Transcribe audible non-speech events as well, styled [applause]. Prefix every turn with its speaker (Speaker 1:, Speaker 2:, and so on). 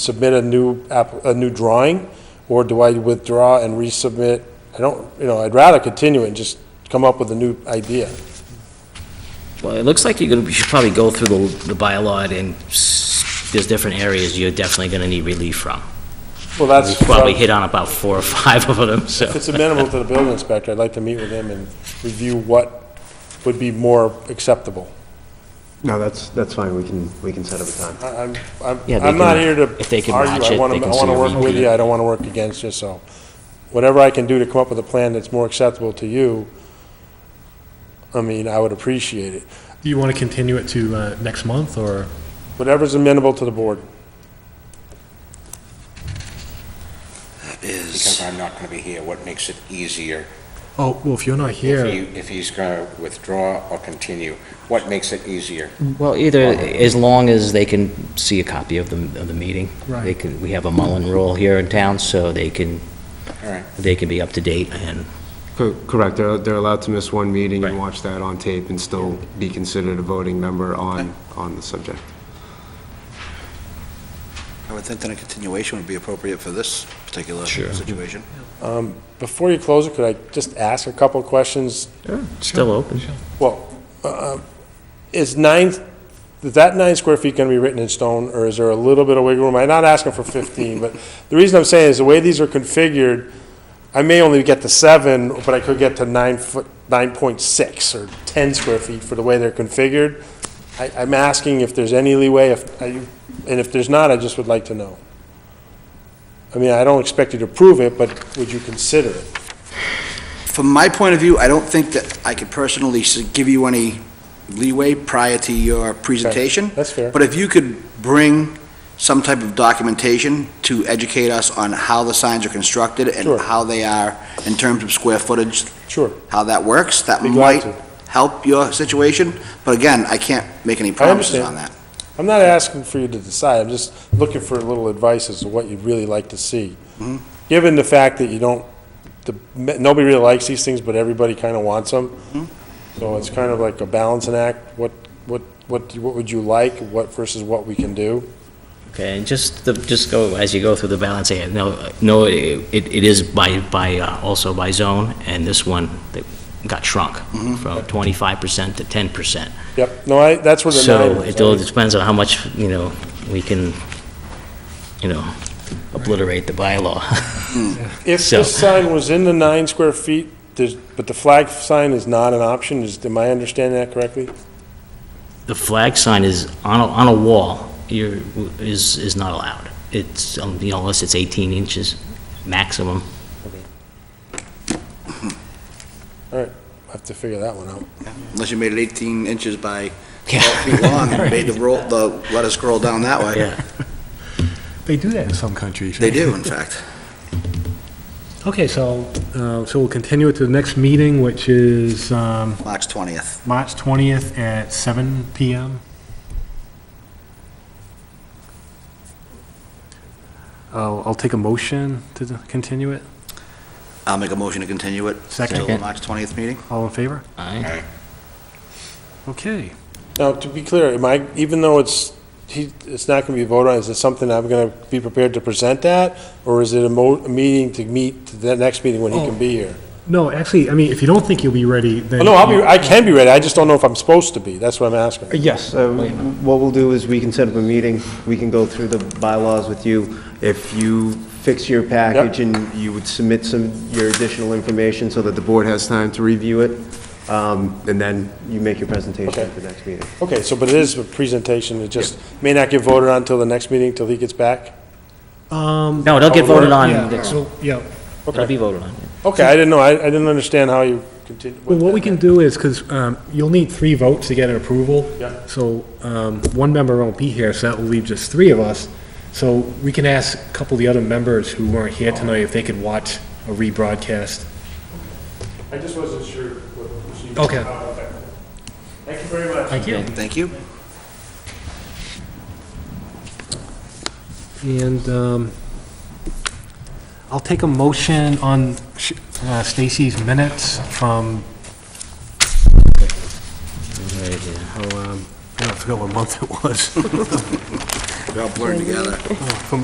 Speaker 1: submit a new, app- a new drawing, or do I withdraw and resubmit? I don't, you know, I'd rather continue and just come up with a new idea.
Speaker 2: Well, it looks like you're gonna, you should probably go through the, the bylaw and s- there's different areas you're definitely gonna need relief from.
Speaker 1: Well, that's,
Speaker 2: Probably
Speaker 1: if
Speaker 2: hit on about four or five of them, so.
Speaker 1: it's amenable to the building inspector, I'd like to meet with him and review what would be more acceptable.
Speaker 3: No, that's, that's fine, we can, we can set up a time.
Speaker 1: I- I'm, I'm,
Speaker 2: Yeah, they
Speaker 1: I'm not
Speaker 2: can-
Speaker 1: here
Speaker 2: if they
Speaker 1: to
Speaker 2: can
Speaker 1: argue,
Speaker 2: match
Speaker 1: I
Speaker 2: it,
Speaker 1: want
Speaker 2: they
Speaker 1: to, I
Speaker 2: can
Speaker 1: want
Speaker 2: sort
Speaker 1: to
Speaker 2: of
Speaker 1: work with
Speaker 2: repeat
Speaker 1: you,
Speaker 2: it.
Speaker 1: I don't want to work against you, so whatever I can do to come up with a plan that's more acceptable to you, I mean, I would appreciate it.
Speaker 4: Do you want to continue it to uh, next month, or?
Speaker 1: Whatever's amenable to the board.
Speaker 5: Because I'm not going to be here, what makes it easier?
Speaker 4: Oh, well, if you're not
Speaker 5: If
Speaker 4: here,
Speaker 5: he, if he's going to withdraw or continue, what makes it easier?
Speaker 2: Well, either, as long as they can see a copy of the, of the meeting. They
Speaker 4: Right.
Speaker 2: can, we have a Mullen rule here in town, so they can,
Speaker 5: All right.
Speaker 2: they can be up to date and,
Speaker 3: Co- Correct, they're, they're allowed to miss one meeting and
Speaker 2: Right.
Speaker 3: watch that on tape and still be considered a voting member on, on the subject.
Speaker 6: I would think that a continuation would be appropriate for this particular
Speaker 2: Sure.
Speaker 6: situation.
Speaker 1: Before you close it, could I just ask a couple of questions?
Speaker 2: still open.
Speaker 1: Well, uh, is nine, is that nine square feet going to be written in stone, or is there a little bit of wiggle room? I'm not asking for 15, but the reason I'm saying is the way these are configured, I may only get to seven, but I could get to nine foot, 9.6 or 10 square feet for the way they're configured. I- I'm asking if there's any leeway, if, I- and if there's not, I just would like to know. I mean, I don't expect you to prove it, but would you consider it?
Speaker 6: From my point of view, I don't think that I could personally s- give you any leeway prior to your presentation.
Speaker 1: That's fair.
Speaker 6: But if you could bring some type of documentation to educate us on how the signs are constructed
Speaker 1: Sure.
Speaker 6: and how they are in terms of square footage,
Speaker 1: Sure.
Speaker 6: how that works, that
Speaker 1: Be glad
Speaker 6: might
Speaker 1: to.
Speaker 6: help your situation. But again, I can't make any promises
Speaker 1: understand.
Speaker 6: on that.
Speaker 1: I'm not asking for you to decide, I'm just looking for a little advice as to what you'd really like to see. Given the fact that you don't, the, nobody really likes these things, but everybody kind of wants them. So it's kind of like a balancing act, what, what, what, do- what would you like, what versus what we can do?
Speaker 2: Okay, and just, the- just go, as you go through the balance, eh, no, no, it, it is by, by, uh, also by zone, and this one that got shrunk from twenty-five percent to ten percent.
Speaker 1: Yep, no, I, that's where the
Speaker 2: So
Speaker 1: nine
Speaker 2: it all
Speaker 1: is.
Speaker 2: depends on how much, you know, we can, you know, obliterate the bylaw. [laughs]
Speaker 1: If
Speaker 2: so-
Speaker 1: this sign was in the nine square feet, there's, but the flag sign is not an option, is, am I understanding that correctly?
Speaker 2: The flag sign is on a, on a wall, you're, is, is not allowed. It's, um, you know, unless it's 18 inches maximum. [laughs]
Speaker 1: All right, I have to figure that one out.
Speaker 6: Unless you made it 18 inches by 12
Speaker 2: Yeah,
Speaker 6: feet long
Speaker 1: [laughs]
Speaker 6: and made the roll, the, let us scroll down that way.
Speaker 2: yeah.
Speaker 4: they do that in some countries.
Speaker 6: They do, in fact.
Speaker 4: Okay, so, uh, so we'll continue it to the next meeting, which is um,
Speaker 6: [laughs] March 20th.
Speaker 4: March 20th at seven PM. I'll, I'll take a motion to the- continue it.
Speaker 6: I'll make a motion to continue it till the
Speaker 4: Second.
Speaker 6: March 20th meeting.
Speaker 4: All in favor?
Speaker 2: Aye.
Speaker 4: Okay.
Speaker 1: Now, to be clear, am I, even though it's, he, it's not gonna be voted on, is it something I'm gonna be prepared to present at? Or is it a mo, a meeting to meet, to the next meeting when he can be here?
Speaker 4: No, actually, I mean, if you don't think you'll be ready, then.
Speaker 1: Oh, No, I'll be, I can be ready, I just don't know if I'm supposed to be, that's what I'm asking.
Speaker 3: Yes, uh, what we'll do is we can set up a meeting, we can go through the bylaws with you. If you fix your package and you would submit some, your additional information so that the board has time to review it, um, and then you make your presentation at the next meeting.
Speaker 1: Okay, so, but it is a presentation, it just may not get voted on till the next meeting, till he gets back?
Speaker 4: Um,
Speaker 2: No, it'll get voted on.
Speaker 4: yeah,
Speaker 2: It'll
Speaker 4: so, yeah.
Speaker 2: be voted on.
Speaker 1: Okay, I didn't know, I, I didn't understand how you continue.
Speaker 4: Well, what we can do is, because you'll need three votes to get an approval.
Speaker 1: Yeah.
Speaker 4: So um, one member won't be here, so that will leave just three of us. So we can ask a couple of the other members who weren't here tonight if they could watch a rebroadcast.
Speaker 1: I just wasn't sure what procedure.
Speaker 4: Okay.
Speaker 1: Thank you very much.
Speaker 4: Thank you.
Speaker 6: Thank you.
Speaker 4: And um, I'll take a motion on Sh- uh, Stacy's minutes from, oh, um, I forgot what month it was.
Speaker 6: We all blurred together.
Speaker 4: From